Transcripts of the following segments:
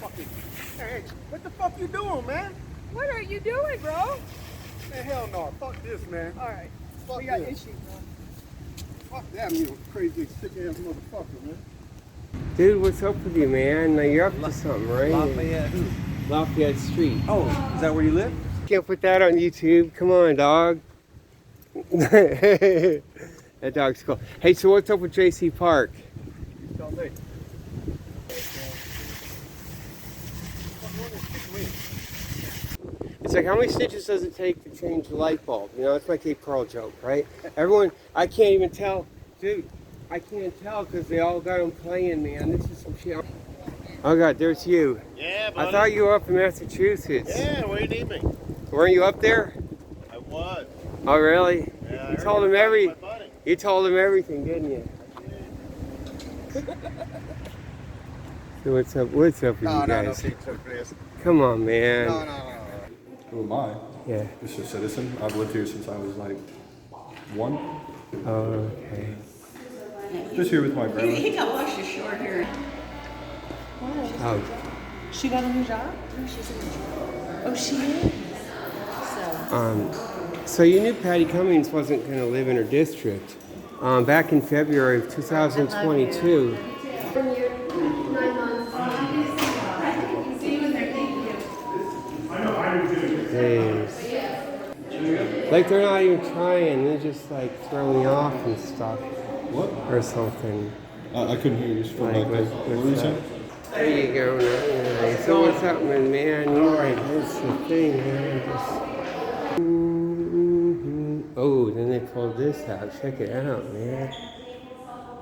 coffee. Hey, what the fuck you doing, man? What are you doing, bro? All Man, hell no. Fuck this, man. right. Fuck we got yeah. issues, bro. Fuck that, you crazy, sick ass motherfucker, man. Dude, what's up with you, man? Now you're up La- to something, right? Lafayette. who? Lafayette Street. Oh, is that where you live? Can't put that on YouTube. Come on, dog. that dog's cool. Hey, so what's up with JC Park? You tell me. It's like how many stitches does it take to change the light bulb? You know, it's like a Pearl joke, right? Everyone, I can't even tell, dude. I can't tell because they all got them playing, man. This is some shit. Oh God, there's you. Yeah, buddy. I thought you were up in Massachusetts. Yeah, where you need me? Weren't you up there? I was. Oh really? Yeah, I You heard told you him were every- my buddy. You told him everything, didn't you? so what's up? What's up with No, no, you no, guys? take took this. Come on, man. No, no, no. Who am I? Yeah. Just a citizen. I've lived here since I was like one. Oh, okay. Just here with my He, grandma. he got washed ashore here. Oh, She got a new job? Oh, she is. So, um, so you knew Patty Cummings wasn't going to live in her district. Um, back in February of 2022. Jeez. Like they're not even trying. They're just like throwing me off and stuff What? or something. I, I couldn't hear you. Just went Like, like with, this. What were you with, uh, saying? there you go. now, yeah. So what's happening, man? You right. That's the thing, man. Just- Mhm. Oh, then they pulled this out. Check it out, man.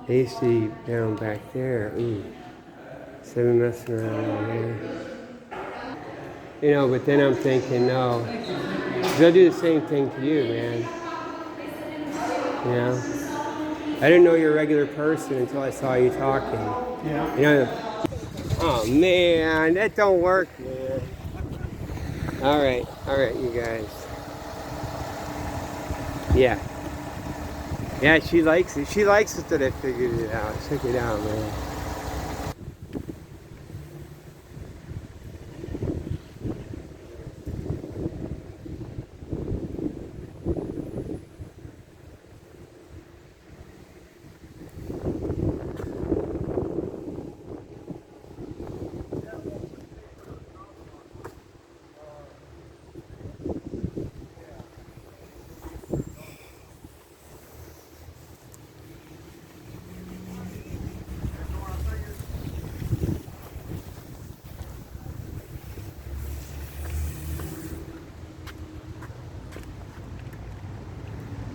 They used to be down back there. Ooh. So they've been messing around over here. You know, but then I'm thinking, no. They'll do the same thing to you, man. You know? I didn't know you were a regular person until I saw you talking. Yeah. You know, oh man, that don't work, man. All right, all right, you guys. Yeah. Yeah, she likes it. She likes it that I figured it out. Check it out, man.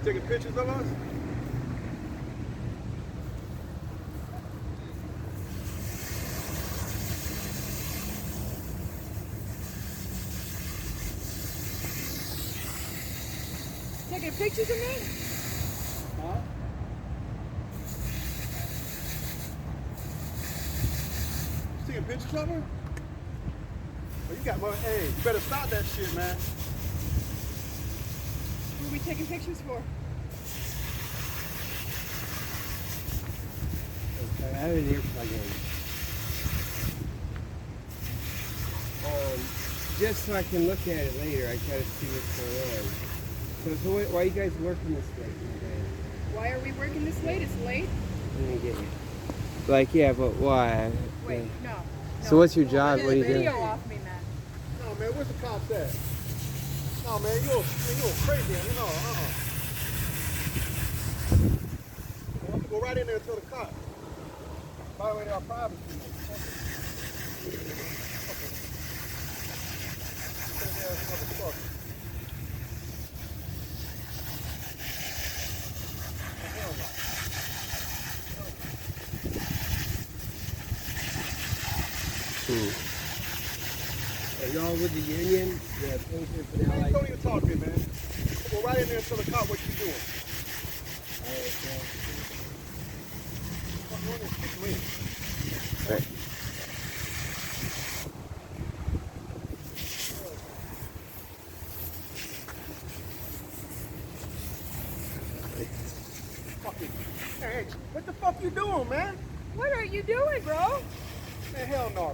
Taking pictures of us? taking pictures of me? Taking pictures of her? Well, you got more. Hey, you better stop that shit, man. Who are we taking pictures for? Um, just so I can look at it later, I gotta see what's going on. So, so why, why you guys working this late? man? Why are we working this late? It's late. Let me get you. Like, yeah, but why? Wait, no. So what's your job? What are you Video doing? off me, man. No, man, where's the cops at? No, man, you're, you're crazy. Man. No, uh-uh. I'm gonna go right in there and tell the cops. By the way, our privacy. Are y'all with the union? Yeah, for the Man, don't even talk to me, man. Go right in there and tell the cop what you're doing. Fuck, you're gonna kick me. Fucking- Hey, what the fuck you doing, man? What are you doing, bro? Man, hell no.